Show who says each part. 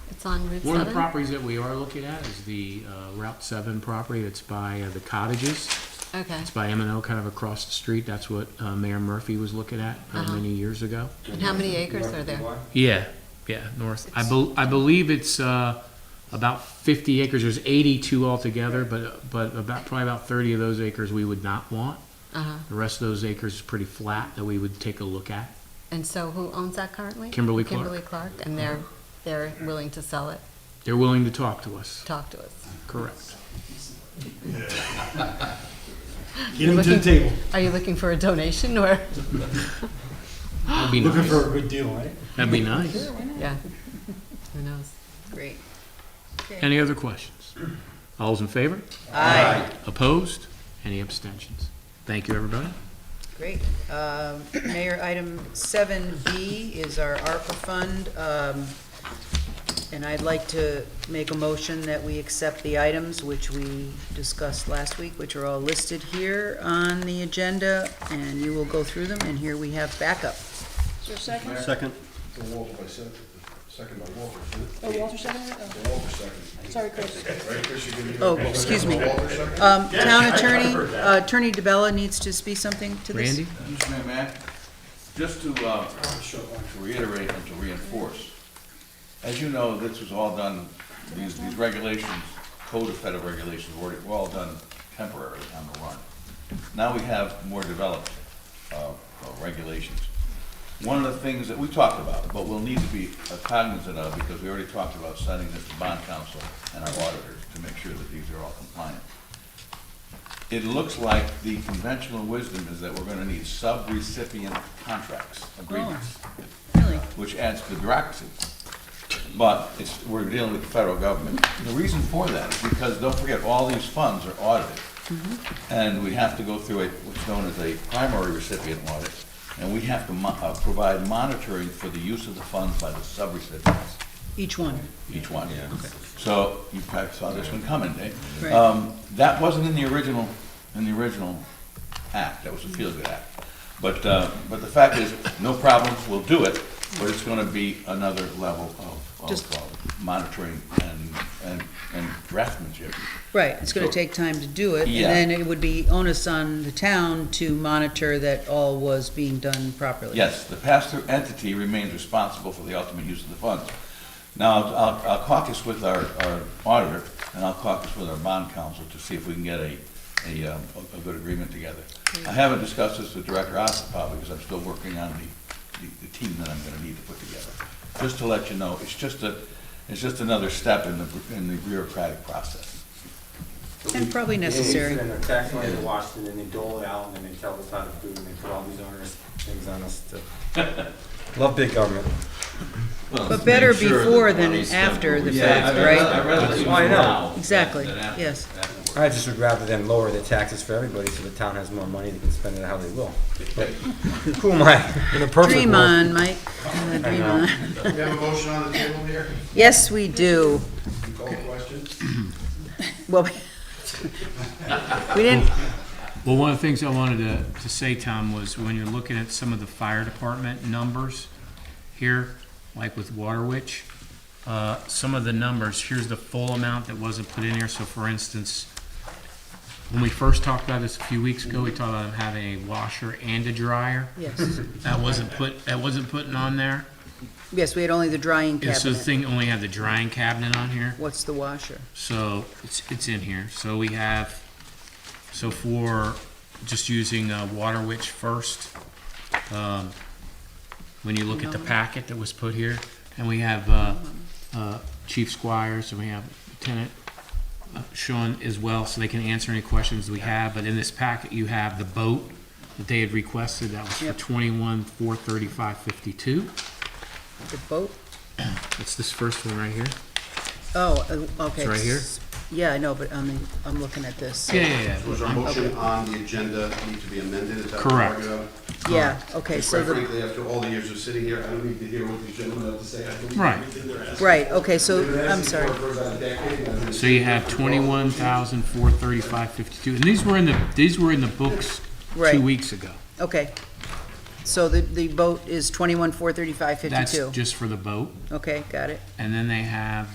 Speaker 1: It's on Route
Speaker 2: One of the
Speaker 1: 7?
Speaker 2: properties that we are looking at is the uh, Route 7 property. It's by uh, the cottages.
Speaker 1: Okay.
Speaker 2: It's by M and O, kind of across the street. That's what uh, Mayor Murphy was looking at uh,
Speaker 1: Uh-huh.
Speaker 2: many years ago.
Speaker 1: And how many acres are there?
Speaker 2: Yeah, yeah, north. I bel I believe it's, uh, about fifty acres. There's eighty-two altogether, but, but about, probably about thirty of those acres we would not want.
Speaker 1: Uh-huh.
Speaker 2: The rest of those acres is pretty flat that we would take a look at.
Speaker 1: And so who owns that currently?
Speaker 2: Kimberly Clark.
Speaker 1: Kimberly Clark, and they're, they're willing to sell it,
Speaker 2: They're willing to talk to us,
Speaker 1: talk to us.
Speaker 2: correct.
Speaker 3: Get him to the table.
Speaker 1: Are you looking for a donation or,
Speaker 2: That'd be
Speaker 3: Looking
Speaker 2: nice.
Speaker 3: for a good deal, right?
Speaker 2: That'd be nice.
Speaker 1: yeah, who knows?
Speaker 4: Great.
Speaker 2: Any other questions? All's in favor?
Speaker 4: Aye.
Speaker 2: Opposed? Any abstentions? Thank you, everybody.
Speaker 4: Great. Um, Mayor, item seven B is our ARPA fund. Um, And I'd like to make a motion that we accept the items which we discussed last week, which are all listed here on the agenda, and you will go through them, and here we have backup.
Speaker 5: Is there a second?
Speaker 3: Second.
Speaker 6: So Walter by second, second by Walter,
Speaker 5: Oh, Walter seconded it?
Speaker 6: so Walter second,
Speaker 5: Oh, Sorry, Chris.
Speaker 6: right, Chris, you give me.
Speaker 4: Oh, excuse me.
Speaker 6: Walter second?
Speaker 4: Um, Town Attorney, uh, Attorney DeBella needs to speak something to this.
Speaker 2: Randy?
Speaker 7: Mr. Mayor, Matt, just to, uh, to reiterate and to reinforce, as you know, this was all done, these, these regulations, code of federal regulations, were, were all done temporarily on the run. Now we have more developed, uh, uh, regulations. One of the things that we talked about, but we'll need to be cognizant of, because we already talked about sending this to bond counsel and our auditors to make sure that these are all compliant it looks like the conventional wisdom is that we're gonna need sub-recipient contracts, agreements,
Speaker 4: Really?
Speaker 7: which adds to the bureaucracy. But it's, we're dealing with the federal government. The reason for that is because, don't forget, all these funds are audited. And we have to go through a, what's known as a primary recipient audit, and we have to mo- uh, provide monitoring for the use of the funds by the sub-recipients
Speaker 4: Each one,
Speaker 7: each one. So you probably saw this one coming, Dave.
Speaker 4: Right.
Speaker 7: Um, That wasn't in the original, in the original act, that was a feel-good act. But, uh, but the fact is, no problems, we'll do it, but it's gonna be another level of,
Speaker 4: Just-
Speaker 7: of uh, monitoring and, and, and draftsmanship.
Speaker 4: right, it's gonna
Speaker 7: Sure.
Speaker 4: take time to do it, and
Speaker 7: Yeah.
Speaker 4: then it would be onus on the town to monitor that all was being done properly.
Speaker 7: Yes, the pass-through entity remains responsible for the ultimate use of the funds. Now, I'll- I'll I'll caucus with our our auditor, and I'll caucus with our bond counsel to see if we can get a, a, um, a a good agreement together. I haven't discussed this with Director Ossipov, because I'm still working on the, the- the team that I'm gonna need to put together. Just to let you know, it's just a, it's just another step in the, in the bureaucratic process.
Speaker 4: And probably necessary.
Speaker 8: They send their tax money to Washington, and they dole it out, and then they tell us how to do it, and they put all these onerous things on us to. Love big government.
Speaker 4: But better before than after the fact, right?
Speaker 8: Why not?
Speaker 4: Exactly, yes.
Speaker 8: I just would rather them lower the taxes for everybody, so the town has more money, they can spend it how they will. Who am I? In a perfect world.
Speaker 4: Dream on, Mike. Uh, Dream on.
Speaker 6: We have a motion on the table here,
Speaker 4: Yes, we do.
Speaker 6: you call the question?
Speaker 4: Well, we didn't,
Speaker 2: Well, one of the things I wanted to, to say, Tom, was when you're looking at some of the fire department numbers here, like with Waterwitch, uh, some of the numbers, here's the full amount that wasn't put in here. So for instance, when we first talked about this a few weeks ago, we talked about having a washer and a dryer.
Speaker 4: yes,
Speaker 2: That wasn't put, that wasn't putting on there.
Speaker 4: yes, we had only the drying
Speaker 2: And so the
Speaker 4: cabinet.
Speaker 2: thing only had the drying cabinet on here.
Speaker 4: What's the washer?
Speaker 2: So it's, it's in here. So we have, so for just using uh, Water Witch first, um, when you look at the packet that was put here, and we have uh, uh, Chief Squires and we have Lieutenant uh, Sean as well, so they can answer any questions we have. But in this packet, you have the boat that they had requested. That was for
Speaker 4: Yep.
Speaker 2: twenty-one, four thirty-five, fifty-two.
Speaker 4: The boat?
Speaker 2: That's this first one right here.
Speaker 4: Oh, uh, okay.
Speaker 2: It's right here.
Speaker 4: Yeah, I know, but I mean, I'm looking at this.
Speaker 2: Yeah, yeah, yeah.
Speaker 6: Was our motion on the agenda need to be amended, is that what
Speaker 2: Correct.
Speaker 6: we're arguing?
Speaker 4: Yeah, okay, so
Speaker 6: Quite
Speaker 4: the,
Speaker 6: frankly, after all the years of sitting here, I don't need to hear what these gentlemen have to say, I believe
Speaker 2: Right.
Speaker 6: everything they're asking.
Speaker 4: right, okay, so,
Speaker 6: They've been
Speaker 4: I'm
Speaker 6: asking
Speaker 4: sorry.
Speaker 6: for it for about a decade, and I've
Speaker 2: So you have
Speaker 6: been-
Speaker 2: twenty-one thousand four thirty-five fifty-two, and these were in the, these were in the books
Speaker 4: Right.
Speaker 2: two weeks ago.
Speaker 4: Okay. So the, the boat is twenty-one, four thirty-five,
Speaker 2: That's
Speaker 4: fifty-two.
Speaker 2: just for the boat,
Speaker 4: Okay, got it.
Speaker 2: and then they have